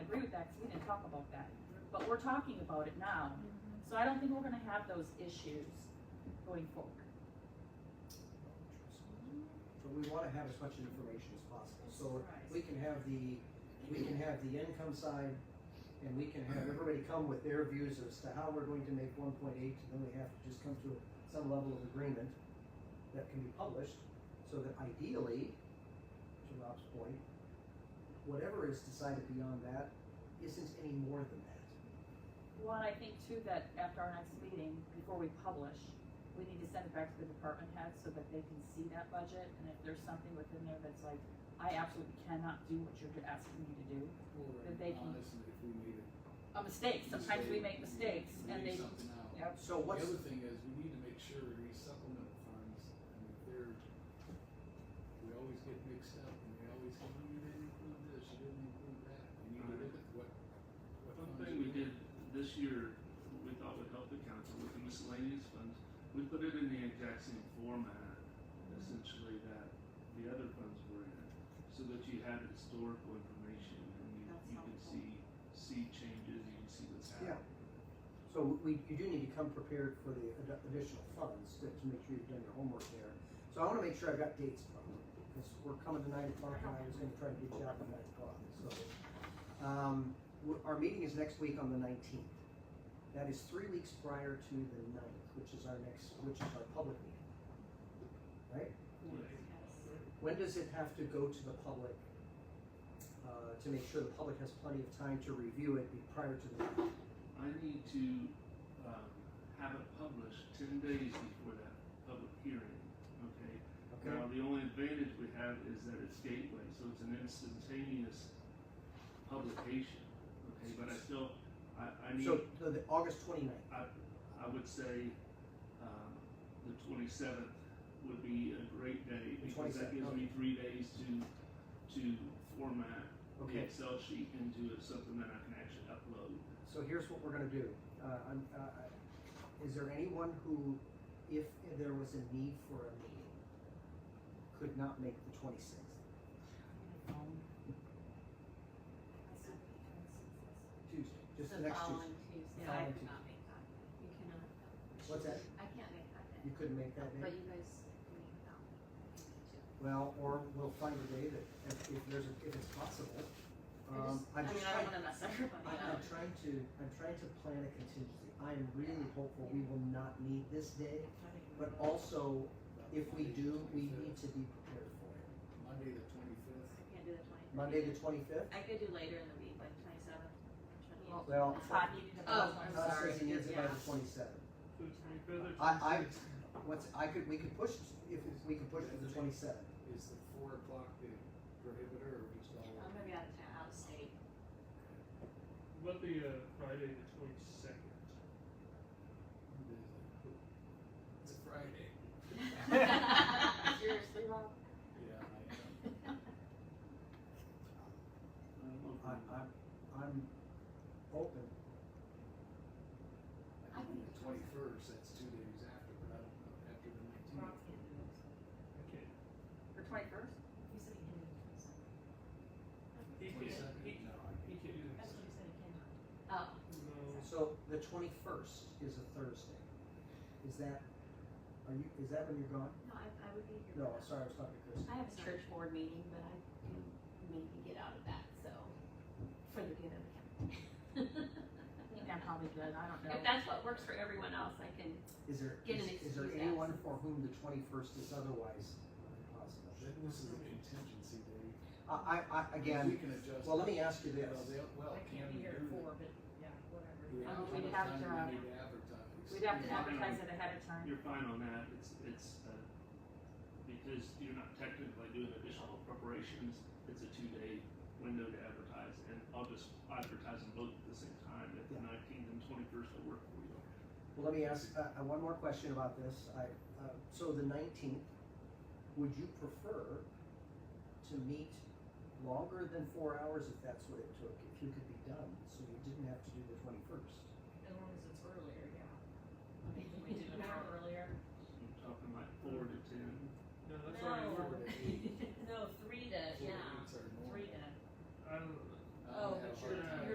talk about that, but we're talking about it now. Mm-hmm. So I don't think we're gonna have those issues going forward. But we wanna have as much information as possible, so we can have the, we can have the income side, and we can have everybody come with their views as to how we're going to make one point eight, and then we have to just come to some level of agreement that can be published, so that ideally, to Rob's point, whatever is decided beyond that isn't any more than that. Well, and I think too that after our next meeting, before we publish, we need to send it back to the department heads so that they can see that budget, and if there's something within there that's like, I absolutely cannot do what you're asking me to do, That they can- Honestly, if we made it. a mistake, sometimes we make mistake, mistakes, we and leave they, something out. yep, The So what's, other thing is, we need to make sure these supplemental funds, I mean, they're, we always get mixed up, and we always go, "Oh, you didn't include this, you didn't include that, we need to look at what. what One funds thing we did this year, we thought would help the council with the miscellaneous funds, we put it in the exact same format, essentially, that the other funds were in, so that you had historical information, and you, That's you could helpful. see, see changes, you could see what's Yeah. happening. So we, you do need to come prepared for the ad- additional funds to, to make sure you've done your homework there. So I wanna make sure I've got dates from, because we're coming to nine o'clock and I was gonna try to get you out by nine o'clock, so. Um, w- our meeting is next week on the nineteenth. That is three weeks prior to the ninth, which is our next, which is our public meeting. When does it have to go to the public? Uh, to make sure the public has plenty of time to review it be- prior to the, ninth? I need to, um, have it published ten days before that public hearing, okay? okay? Now, the only advantage we have is that it's gateway, so it's an instantaneous publication, okay, but I still, I, I need, So, the, the August twenty-ninth. I would say, um, the twenty-seventh would be a great day, The because that 27th, gives me three days to, to format the Okay, Excel sheet into something that I can actually upload. so here's what we're gonna do. Uh, I'm, uh, is there anyone who, if there was a need for a meeting, could not make the twenty-sixth? Tuesday, just the next Tuesday. Tuesday. Yeah, I I Following cannot could not make that. You cannot. What's that? I can't make that You couldn't make that But day? you guys can make that one. Well, or we'll find a day that, if, if there's, a- if it's possible. Um, I'm just trying, wanna mess everybody I- I'm trying to, I'm trying to plan a contingency. I am really hopeful we will not need this day, but also, if we do, we need to be prepared for it. Monday the twenty-fifth, Monday the twenty-fifth? I can't do the twenty. I could do later in the week, like twenty seventh, twenty eighth. Well, Todd needed to. Oh, I'm Todd sorry. says he needs it by Yeah. the twenty-seventh. The twenty-fifth? I, I, what's, I could, we could push, if we could push to the twenty-seventh. is the four o'clock the prohibitor, or just all? I'm gonna be out of town, out of state. What the, uh, Friday the twenty-second? It's a Friday. Seriously, Rob? Yeah, I am. I'm, I'm, I'm open. I think the twenty-first, that's two days after, but I don't know, after the nineteenth. Okay. For twenty-first? You said you can do the twenty seventh. Twenty-second, no, I he can't do That's what you said you can do. Oh, No. So the twenty-first is a Thursday. Is that, are you, is that when you're gone? no, I, I would be here. No, for that. sorry, I was talking to Chris. I have a church board meeting, but I do maybe get out of that, so, for the good of the county. I think I'm probably good, I don't know. If that's what works for everyone else, I can, Is there, Get an is, is there excuse anyone for whom the twenty-first is otherwise impossible? Then this is a contingency day. I, I, I, again, We can adjust. well, let me ask you Well, this. they'll, well, can we do that? but, yeah, whatever. Do we Um, how we'd much have time to, um, do we need to advertise? We'd have to Yeah. advertise it ahead of time. You're fine on that, it's, it's, uh, because you're not technically doing additional preparations, it's a two-day window to advertise, and I'll just advertise them both at the same time, if the Yeah. nineteenth and twenty-first will work for you. Well, let me ask, uh, uh, one more question about this, I, uh, so the nineteenth, would you prefer to meet longer than four hours if that's what it took? If you could Oh, Uh,